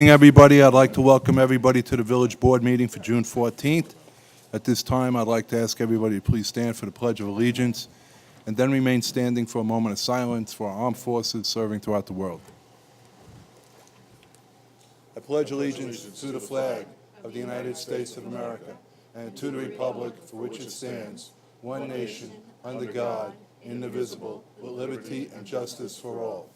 Evening, Everybody, I'd like to welcome everybody to the Village Board meeting for June 14th. At this time, I'd like to ask everybody to please stand for the Pledge of Allegiance, and then remain standing for a moment of silence for our armed forces serving throughout the world. I pledge allegiance to the flag of the United States of America and to the republic for which it stands, one nation, under God, indivisible, with liberty and justice for all.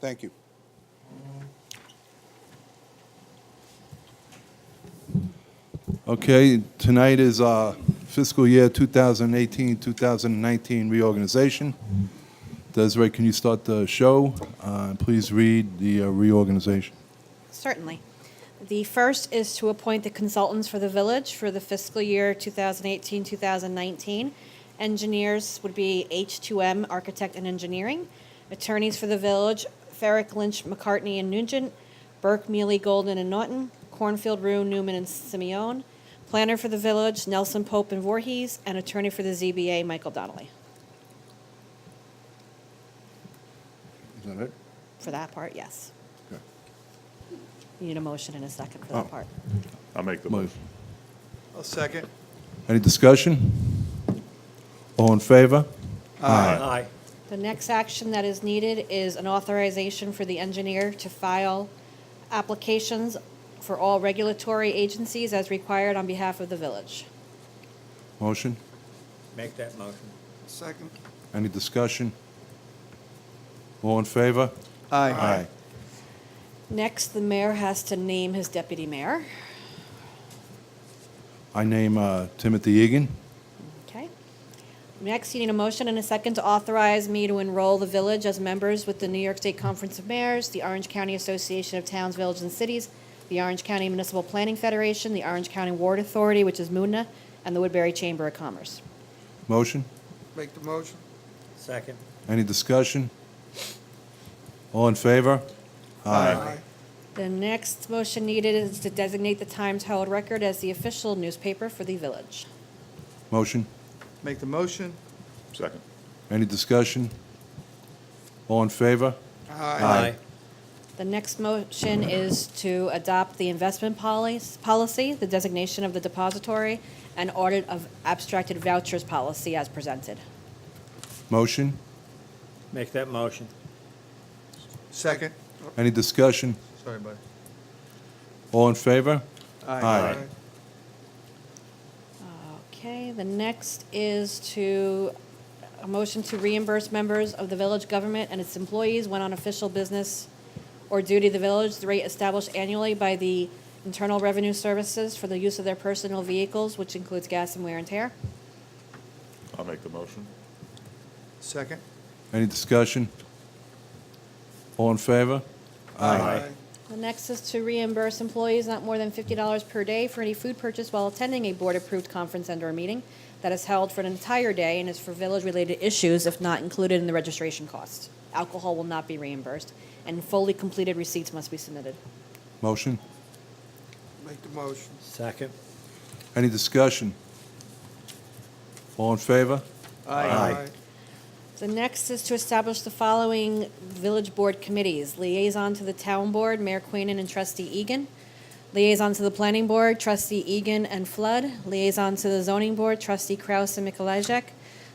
Thank you. Okay, tonight is uh, fiscal year 2018, 2019 reorganization. Desiree, can you start the show? Uh, Please read the uh, reorganization. Certainly. The first is to appoint the consultants for the village for the fiscal year 2018, 2019. Engineers would be H2M Architect and Engineering. Attorneys for the village, Ferrick Lynch, McCartney and Nugent, Burke, Mealy, Golden and Norton, Cornfield, Rue, Newman and Simeon. Planner for the village, Nelson Pope and Voorhees, and attorney for the ZBA, Michael Donnelly, Is that it? for that part, yes. Okay. You need a motion in a second for Oh. that part. I'll make the Move. motion. I'll second. Any discussion? All in favor? Aye. The next action that is needed is an authorization for the engineer to file applications for all regulatory agencies as required on behalf of the village. Motion? Make that motion. Second. Any discussion? All in favor? Aye. Next, the mayor has to name his deputy mayor. I name uh, Timothy Egan. Okay. Next, you need a motion and a second to authorize me to enroll the village as members with the New York State Conference of Mayors, the Orange County Association of Towns, Villages, and Cities, the Orange County Municipal Planning Federation, the Orange County Ward Authority, which is MUNA, and the Woodbury Chamber of Commerce. Motion? Make the motion. Second. Any discussion? All in favor? The next motion needed is to designate the Times Herald Record as the official newspaper for the village. Motion? Make the motion. Second. Any discussion? All in favor? Aye. The next motion is to adopt the investment polic- policy, the designation of the depository, and audit of abstracted vouchers policy as presented. Motion? Make that motion. Second. Any discussion? Sorry, buddy. All in favor? Aye. Okay, the next is to, a motion to reimburse members of the village government and its employees when on official business or duty of the village, the rate established annually by the Internal Revenue Services for the use of their personal vehicles, which includes gas and wear and tear. I'll make the motion. Second. Any discussion? All in favor? The next is to reimburse employees not more than fifty dollars per day for any food purchase while attending a board-approved conference and/or meeting that is held for an entire day and is for village-related issues if not included in the registration cost. Alcohol will not be reimbursed, and fully completed receipts must be submitted. Motion? Make the motion. Second. Any discussion? All in favor? Aye. The next is to establish the following village board committees. Liaison to the town board, Mayor Queenan and trustee Egan. Liaison to the planning board, trustee Egan and Flood. Liaison to the zoning board, trustee Kraus and Mikolajek.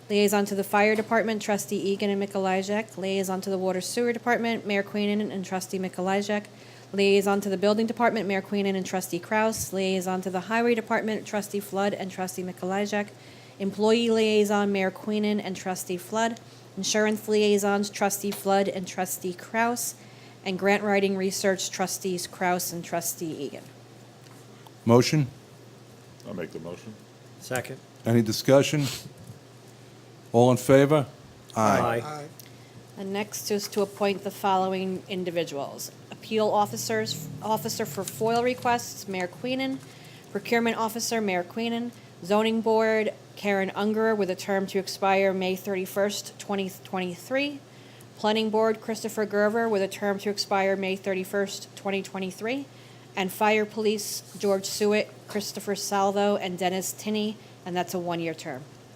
Liaison to the fire department, trustee Egan and Mikolajek. Liaison to the water sewer department, Mayor Queenan and trustee Mikolajek. Liaison to the building department, Mayor Queenan and trustee Kraus. Liaison to the highway department, trustee Flood and trustee Mikolajek. Employee Liaison, Mayor Queenan and Trustee Flood. Insurance Liaisons, Trustee Flood and Trustee Kraus. And Grant Writing Research, Trustees Kraus and Trustee Egan. Motion? I'll make the motion. Second. Any discussion? All in favor? Aye. And next is to appoint the following individuals. Appeal officers, officer for FOIL requests, Mayor Queenan. Procurement officer, Mayor Queenan. Zoning board, Karen Ungerer, with a term to expire May 31st, 2023. Planning board, Christopher Gerver, with a term to expire May 31st, 2023. And fire police, George Sewitt, Christopher Salvo, and Dennis Tinney, and that's a one-year term.